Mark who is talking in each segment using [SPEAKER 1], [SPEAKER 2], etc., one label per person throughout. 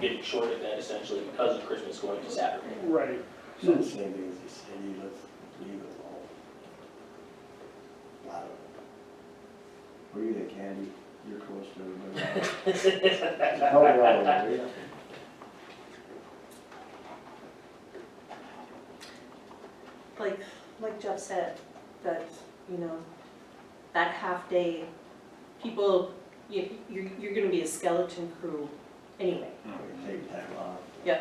[SPEAKER 1] getting shorted then essentially because of Christmas going to Saturday.
[SPEAKER 2] Right.
[SPEAKER 3] So the same thing as the city, let's leave it alone. Lot of it. Were you the candy? You're close to everybody. Help her out, will you?
[SPEAKER 4] like, like Jeff said, that, you know, that half day, people, you, you're, you're gonna be a skeleton crew anyway,
[SPEAKER 3] We Take time off.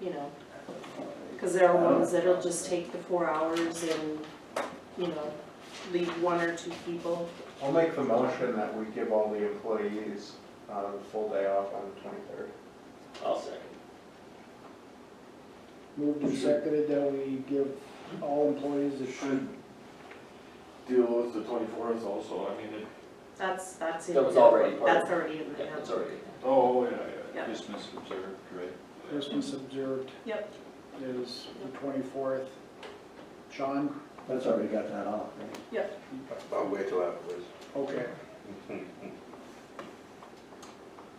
[SPEAKER 4] you know? Cause there
[SPEAKER 5] Oh.
[SPEAKER 4] are ones that'll just take the four hours and, you know, leave one or two people.
[SPEAKER 5] I'll make the motion that we give all the employees uh, the full day off on the twenty-third.
[SPEAKER 1] I'll second.
[SPEAKER 2] Moved and seconded that we give all employees a shoot.
[SPEAKER 6] Should deal with the twenty-fourth also, I mean, it,
[SPEAKER 4] That's, that's in.
[SPEAKER 1] That was already part of
[SPEAKER 4] That's already in
[SPEAKER 1] Yeah,
[SPEAKER 4] there.
[SPEAKER 1] that's already.
[SPEAKER 6] oh, yeah,
[SPEAKER 4] Yeah.
[SPEAKER 6] yeah. Christmas observed, right?
[SPEAKER 2] Christmas observed.
[SPEAKER 4] Yep.
[SPEAKER 2] Is the twenty-fourth. Sean?
[SPEAKER 3] That's already got that off, right?
[SPEAKER 7] I'll wait till afterwards.
[SPEAKER 2] Okay.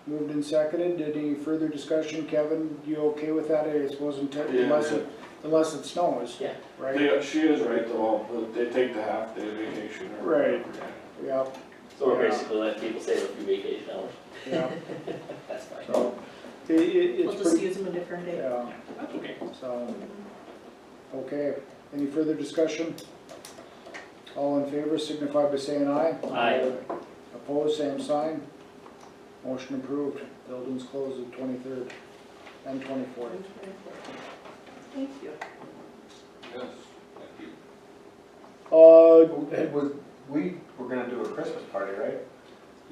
[SPEAKER 2] Moved and seconded. Did any further discussion? Kevin, you okay with that? I suppose until-
[SPEAKER 6] Yeah,
[SPEAKER 2] unless it, unless it snows.
[SPEAKER 1] Yeah.
[SPEAKER 2] Right?
[SPEAKER 6] They, she is right though, but they take the half day vacation or.
[SPEAKER 2] Right.
[SPEAKER 6] whatever,
[SPEAKER 2] Yeah,
[SPEAKER 1] So we're
[SPEAKER 2] Yeah.
[SPEAKER 1] basically letting people save a few vacation hours.
[SPEAKER 2] yeah.
[SPEAKER 1] That's fine.
[SPEAKER 3] So,
[SPEAKER 2] It, it,
[SPEAKER 4] We'll
[SPEAKER 2] it's
[SPEAKER 4] just
[SPEAKER 2] pretty,
[SPEAKER 4] use them a different day.
[SPEAKER 2] yeah.
[SPEAKER 1] That's okay.
[SPEAKER 2] So, okay, any further discussion? All in favor signify by saying aye.
[SPEAKER 1] Aye.
[SPEAKER 2] Opposed, same sign. Motion approved. Buildings closed the twenty-third and twenty-fourth.
[SPEAKER 4] Thank you.
[SPEAKER 6] yeah. Yes, thank you.
[SPEAKER 2] Uh,
[SPEAKER 5] It was, we were gonna do a Christmas party, right?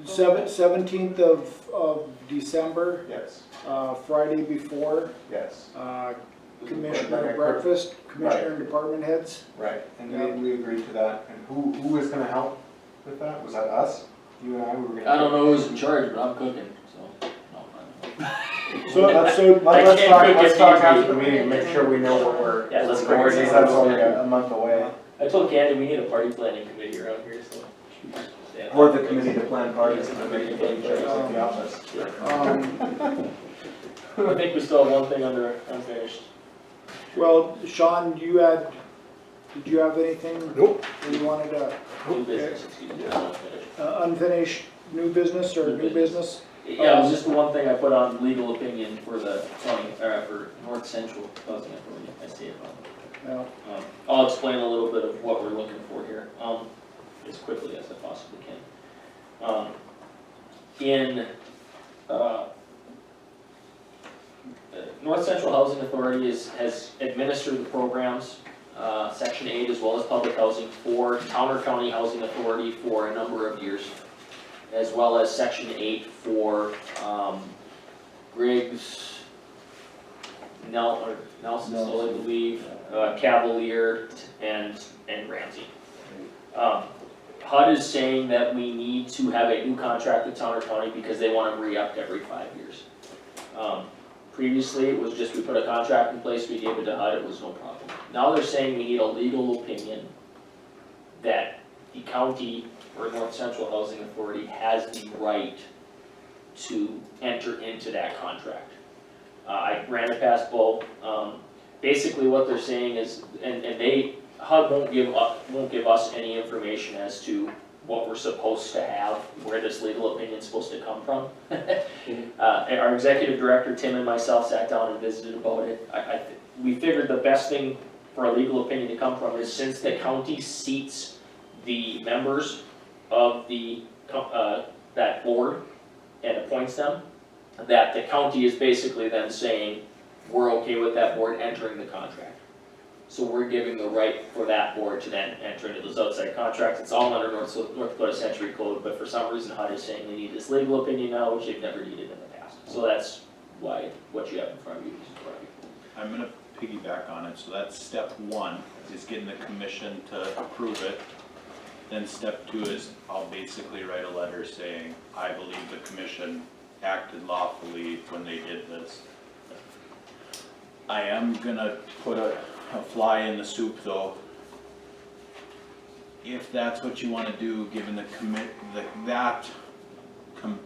[SPEAKER 2] seven, seventeenth of, of December,
[SPEAKER 5] Yes,
[SPEAKER 2] uh, Friday before,
[SPEAKER 5] yes,
[SPEAKER 2] uh,
[SPEAKER 6] This is
[SPEAKER 2] commissioner
[SPEAKER 5] Right.
[SPEAKER 2] breakfast, commissioner and department heads.
[SPEAKER 5] right, and we, we agreed to that, and who, who was gonna help with that? Was that us? You and I, we were gonna.
[SPEAKER 1] know who's in charge, but I'm cooking, so. no, I'm-
[SPEAKER 2] So,
[SPEAKER 5] So,
[SPEAKER 1] I
[SPEAKER 5] let's
[SPEAKER 1] can't
[SPEAKER 5] talk,
[SPEAKER 1] cook
[SPEAKER 5] let's
[SPEAKER 1] if
[SPEAKER 5] talk
[SPEAKER 1] you-
[SPEAKER 5] after the meeting, make sure we know what we're.
[SPEAKER 1] Yeah, let's
[SPEAKER 5] we're doing,
[SPEAKER 1] coordinate.
[SPEAKER 5] since That's only a a month away,
[SPEAKER 1] I told Candy we need a party planning committee around here, so. Yeah.
[SPEAKER 5] or the committee to plan parties, and the meeting, at the office.
[SPEAKER 2] um,
[SPEAKER 1] I think we still have one thing under unfinished.
[SPEAKER 2] well, Sean, you had, did you have anything?
[SPEAKER 7] Nope.
[SPEAKER 2] You wanted to?
[SPEAKER 1] New business, excuse me, not unfinished.
[SPEAKER 2] Uh, unfinished new business or
[SPEAKER 1] New
[SPEAKER 2] new business?
[SPEAKER 1] Yeah, it was just the one thing I put on legal opinion for the county, or for North Central Housing Authority, I see it wrong.
[SPEAKER 2] No.
[SPEAKER 1] Um, I'll explain a little bit of what we're looking for here, um, as quickly as I possibly can. Um, in, uh, the North Central Housing Authority is, has administered the programs, uh, section eight as well as public housing for Towner County Housing Authority for a number of years. As well as section eight for, um, Griggs, Nel, or Nelson, I
[SPEAKER 3] Nelson.
[SPEAKER 1] believe, uh, Cavalier and, and Ramsey. Um, HUD is saying that we need to have a new contract with Towner County because they wanna re-up every five years. Um, previously, it was just we put a contract in place, we gave it to HUD, it was no problem. Now they're saying we need a legal opinion that the county or North Central Housing Authority has the right to enter into that contract. Uh, I ran it past Bo, um, basically what they're saying is, and, and they, HUD won't give up, won't give us any information as to what we're supposed to have, where this legal opinion's supposed to come from. Uh, and our executive director, Tim and myself sat down and visited about it, I, I, th- we figured the best thing for a legal opinion to come from is since the county seats the members of the, co- uh, that board and appoints them, that the county is basically then saying, we're okay with that board entering the contract. So we're giving the right for that board to then enter into those outside contracts, it's all under North, North Dakota Century Code, but for some reason HUD is saying they need this legal opinion now, which they've never needed in the past. So that's why, what you have in front of you is correct.
[SPEAKER 8] I'm gonna piggyback on it, so that's step one, is getting the commission to approve it. Then step two is, I'll basically write a letter saying, I believe the commission acted lawfully when they did this. I am gonna put a, a fly in the soup though. If that's what you wanna do, given the commit, the, that com-